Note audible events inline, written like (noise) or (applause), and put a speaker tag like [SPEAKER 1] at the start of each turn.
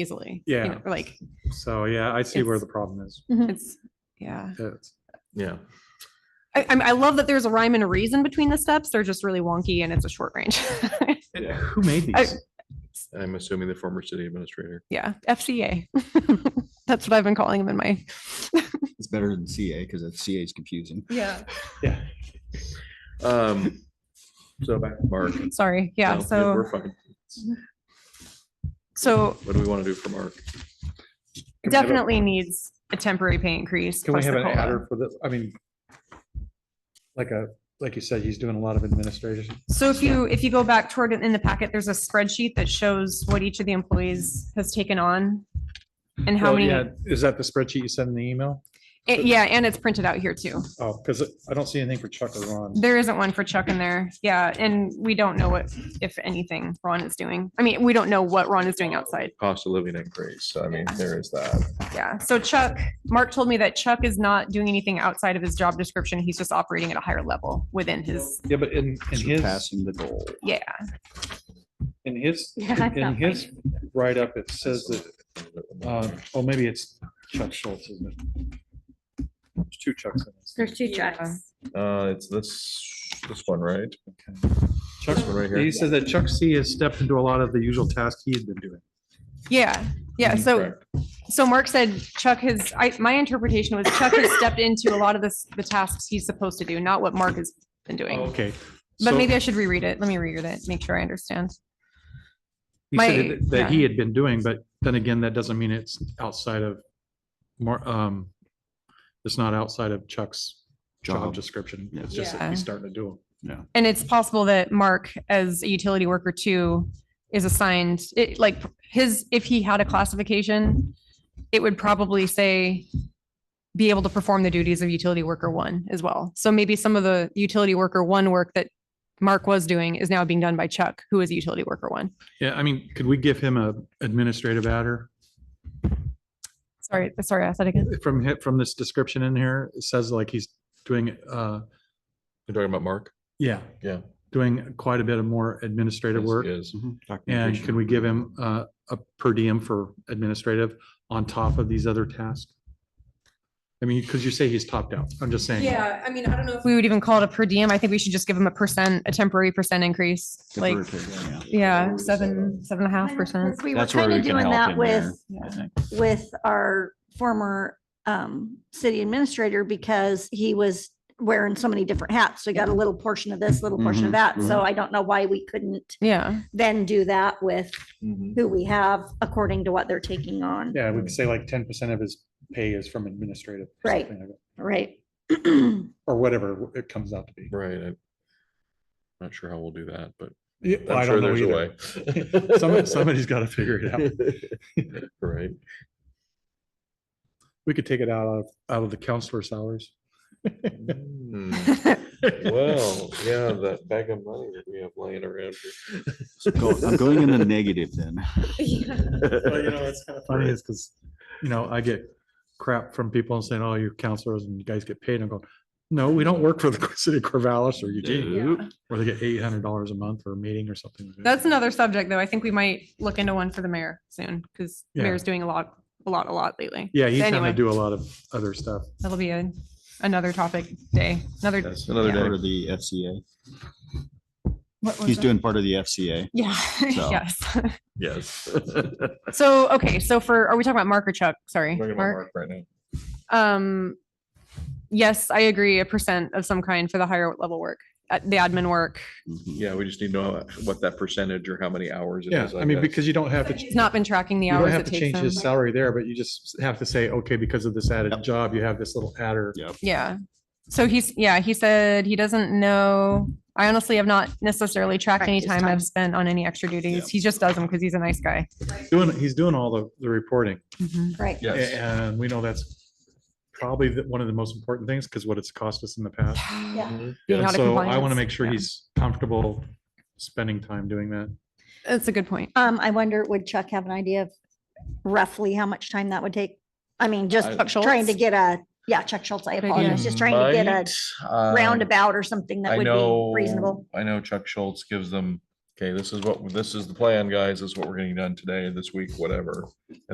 [SPEAKER 1] easily.
[SPEAKER 2] Yeah.
[SPEAKER 1] You know, like
[SPEAKER 2] So yeah, I see where
[SPEAKER 1] It's-
[SPEAKER 2] the problem is.
[SPEAKER 1] it's, yeah.
[SPEAKER 2] It's-
[SPEAKER 3] Yeah.
[SPEAKER 1] I, I'm- I love that there's a rhyme and a reason between the steps. They're just really wonky and it's a short range. (laughs)
[SPEAKER 2] And who made
[SPEAKER 1] I-
[SPEAKER 2] these?
[SPEAKER 3] I'm assuming the former city administrator.
[SPEAKER 1] yeah. FCA. (laughs) That's what I've been calling them in my.
[SPEAKER 4] It's better than CA because CA is confusing.
[SPEAKER 1] Yeah.
[SPEAKER 2] Yeah.
[SPEAKER 3] Um, so back to Mark.
[SPEAKER 1] (laughs) Sorry. Yeah.
[SPEAKER 3] No,
[SPEAKER 1] so,
[SPEAKER 3] We're fine.
[SPEAKER 1] so
[SPEAKER 3] What do we want to do for Mark?
[SPEAKER 2] Can we have a-
[SPEAKER 1] definitely needs a temporary pay increase.
[SPEAKER 2] Can we
[SPEAKER 1] plus
[SPEAKER 2] have
[SPEAKER 1] the
[SPEAKER 2] an
[SPEAKER 1] COLA.
[SPEAKER 2] adder for this? I mean, like a, like you said, he's doing a lot of administration.
[SPEAKER 1] So if you, if you go back toward it in the packet, there's a spreadsheet that shows what each of the employees has taken on. And how
[SPEAKER 2] Well,
[SPEAKER 1] many,
[SPEAKER 2] Oh, yeah, Is that the spreadsheet you sent in the email?
[SPEAKER 1] it- yeah, and it's printed out here too.
[SPEAKER 2] Oh, because I don't see anything for Chuck or Ron.
[SPEAKER 1] There isn't one for Chuck in there. Yeah, and we don't know what, if anything, Ron is doing. I mean, we don't know what Ron is doing outside.
[SPEAKER 3] Cost of living increase. So, I mean, there is that.
[SPEAKER 1] Yeah, so Chuck, Mark told me that Chuck is not doing anything outside of his job description. He's just operating at a higher level within his,
[SPEAKER 2] Yeah, but in, in his,
[SPEAKER 4] Surpassing the goal.
[SPEAKER 1] yeah.
[SPEAKER 2] in his,
[SPEAKER 1] (laughs) Yeah, that's
[SPEAKER 2] in
[SPEAKER 1] not
[SPEAKER 2] his write-up, it says that, uh, oh, maybe it's Chuck Schultz, isn't it? There's two Chucks in this.
[SPEAKER 5] There's two
[SPEAKER 1] Yeah.
[SPEAKER 5] checks.
[SPEAKER 3] Uh, it's this, this one, right?
[SPEAKER 2] Chuck,
[SPEAKER 3] This one right
[SPEAKER 2] he
[SPEAKER 3] here.
[SPEAKER 2] says that Chuck C has stepped into a lot of the usual tasks he's been doing.
[SPEAKER 1] Yeah, yeah, so,
[SPEAKER 3] Correct.
[SPEAKER 1] so Mark said Chuck has, I, my interpretation was Chuck has stepped into a lot of this, the tasks he's supposed to do, not what Mark has been doing.
[SPEAKER 2] Oh, Okay.
[SPEAKER 1] But
[SPEAKER 2] So-
[SPEAKER 1] maybe I should reread it. Let me reread it, make sure I understand.
[SPEAKER 2] He said
[SPEAKER 1] My-
[SPEAKER 2] that- that he had been doing, but then again, that doesn't mean it's outside of more, um, it's not outside of Chuck's job
[SPEAKER 4] Job.
[SPEAKER 2] description.
[SPEAKER 4] Yeah.
[SPEAKER 2] It's just that he's starting to do.
[SPEAKER 1] And it's possible that Mark, as a utility worker too, is assigned, it, like, his, if he had a classification, it would probably say be able to perform the duties of utility worker one as well. So maybe some of the utility worker one work that Mark was doing is now being done by Chuck, who is a utility worker one.
[SPEAKER 2] Yeah, I mean, could we give him a administrative adder?
[SPEAKER 1] Sorry, sorry, I said again.
[SPEAKER 2] From, hi- from this description in here, it says like he's doing, uh,
[SPEAKER 3] You're talking about Mark?
[SPEAKER 2] yeah.
[SPEAKER 3] Yeah.
[SPEAKER 2] Doing quite a bit of more administrative
[SPEAKER 3] Yes,
[SPEAKER 2] work.
[SPEAKER 3] he is.
[SPEAKER 4] Mm-hmm.
[SPEAKER 2] And
[SPEAKER 4] Documentation.
[SPEAKER 2] can we give him, uh, a per diem for administrative on top of these other tasks? I mean, because you say he's topped out. I'm just saying.
[SPEAKER 1] I mean, I don't know. If we would even call it a per diem. I think we should just give him a percent, a temporary percent increase, like,
[SPEAKER 4] Deferred,
[SPEAKER 1] yeah, seven, seven and a half percent.
[SPEAKER 5] We were
[SPEAKER 4] That's where
[SPEAKER 5] kind of
[SPEAKER 4] we can
[SPEAKER 5] doing that
[SPEAKER 4] help in there.
[SPEAKER 5] with,
[SPEAKER 4] yeah, I think.
[SPEAKER 5] with our former um, city administrator because he was wearing so many different hats. So we got a little portion of this, little portion
[SPEAKER 4] Mhm,
[SPEAKER 5] of that. So I don't know why we couldn't
[SPEAKER 1] Yeah, (laughs)
[SPEAKER 5] then do that with
[SPEAKER 3] Mhm.
[SPEAKER 5] who we have according to what they're taking on.
[SPEAKER 2] Yeah, we could say like ten percent of his pay is from administrative. or
[SPEAKER 5] Right.
[SPEAKER 2] something like that,
[SPEAKER 5] Right. (clears throat) Well,
[SPEAKER 2] Or whatever it comes out to be.
[SPEAKER 3] Right. I'm Not sure how we'll do that, but
[SPEAKER 2] Yeah, well, I
[SPEAKER 3] I'm sure
[SPEAKER 2] don't know
[SPEAKER 3] there's a
[SPEAKER 2] either.
[SPEAKER 3] way. (laughs)
[SPEAKER 2] Somebody, somebody's got to figure it out.
[SPEAKER 3] Right.
[SPEAKER 2] We could take it out of, out of the counselor salaries.
[SPEAKER 3] Hmm. Well, yeah, that bag of money that we have laying around.
[SPEAKER 4] Go- I'm going in the negative then.
[SPEAKER 2] you know, it's kind of funny is because, you know, I get crap from people and saying, oh, you're counselors and you guys get paid. And I'm going, no, we don't work for the (laughs) city of Corvallis or Eugene, where they get eight hundred dollars a month for a meeting or something. like that.
[SPEAKER 1] that's another subject, though. I think we might look into one for the mayor soon, because the
[SPEAKER 2] Yeah.
[SPEAKER 1] mayor's doing a lot, a lot, a lot lately.
[SPEAKER 2] Yeah, he's having
[SPEAKER 1] Anyway.
[SPEAKER 2] to do a lot of other stuff.
[SPEAKER 1] That'll be a, another topic day, another.
[SPEAKER 3] That's another
[SPEAKER 4] Part
[SPEAKER 3] day.
[SPEAKER 4] of the FCA.
[SPEAKER 1] what was
[SPEAKER 4] He's
[SPEAKER 1] it?
[SPEAKER 4] doing part of the FCA.
[SPEAKER 1] Yeah, (laughs)
[SPEAKER 4] So.
[SPEAKER 1] yes.
[SPEAKER 3] Yes.
[SPEAKER 1] So, okay, so for, are we talking about Mark or Chuck? Sorry.
[SPEAKER 3] Talking about
[SPEAKER 1] Mark.
[SPEAKER 3] Mark right now.
[SPEAKER 1] Um, yes, I agree, a percent of some kind for the higher level work, uh, the admin work.
[SPEAKER 4] Mhm.
[SPEAKER 3] Yeah, we just need to know what that percentage or how many hours. it
[SPEAKER 2] Yeah,
[SPEAKER 3] is,
[SPEAKER 2] I mean,
[SPEAKER 3] guess.
[SPEAKER 2] because you don't have to.
[SPEAKER 1] He's not been tracking the
[SPEAKER 2] You don't
[SPEAKER 1] hours
[SPEAKER 2] have
[SPEAKER 1] it
[SPEAKER 2] to change
[SPEAKER 1] takes
[SPEAKER 2] his
[SPEAKER 1] him.
[SPEAKER 2] salary there, but you just have to say, okay, because of this added
[SPEAKER 4] Yep.
[SPEAKER 2] job, you have this little adder.
[SPEAKER 4] Yep.
[SPEAKER 1] Yeah. So he's, yeah, he said he doesn't know. I honestly have not necessarily tracked any
[SPEAKER 5] Tracked
[SPEAKER 1] time
[SPEAKER 5] his time.
[SPEAKER 1] I've spent on any extra duties. He just does them because he's a nice guy.
[SPEAKER 2] Doing, he's doing all the, the reporting.
[SPEAKER 5] Right.
[SPEAKER 2] A-
[SPEAKER 3] Yes.
[SPEAKER 2] And we know that's probably the- one of the most important things because what it's cost us in the past.
[SPEAKER 5] Yeah.
[SPEAKER 3] Mhm.
[SPEAKER 1] Mm-hmm. Being
[SPEAKER 2] And
[SPEAKER 1] out of
[SPEAKER 2] So I want to
[SPEAKER 1] compliance.
[SPEAKER 2] make sure
[SPEAKER 1] Yeah.
[SPEAKER 2] he's comfortable spending time doing that.
[SPEAKER 1] That's a good point.
[SPEAKER 5] Um, I wonder, would Chuck have an idea of roughly how much time that would take? I mean, just
[SPEAKER 3] I- Chuck
[SPEAKER 5] trying to
[SPEAKER 1] Schultz?
[SPEAKER 5] get a, yeah, Chuck Schultz, I
[SPEAKER 1] Good
[SPEAKER 5] apologize,
[SPEAKER 1] idea.
[SPEAKER 5] just trying to get a
[SPEAKER 3] Might, um,
[SPEAKER 5] roundabout or something that
[SPEAKER 3] I
[SPEAKER 5] would
[SPEAKER 3] know-
[SPEAKER 5] be reasonable.
[SPEAKER 3] I know Chuck Schultz gives them okay, this is what, this is the plan, guys, this is what we're getting done today, this week, whatever.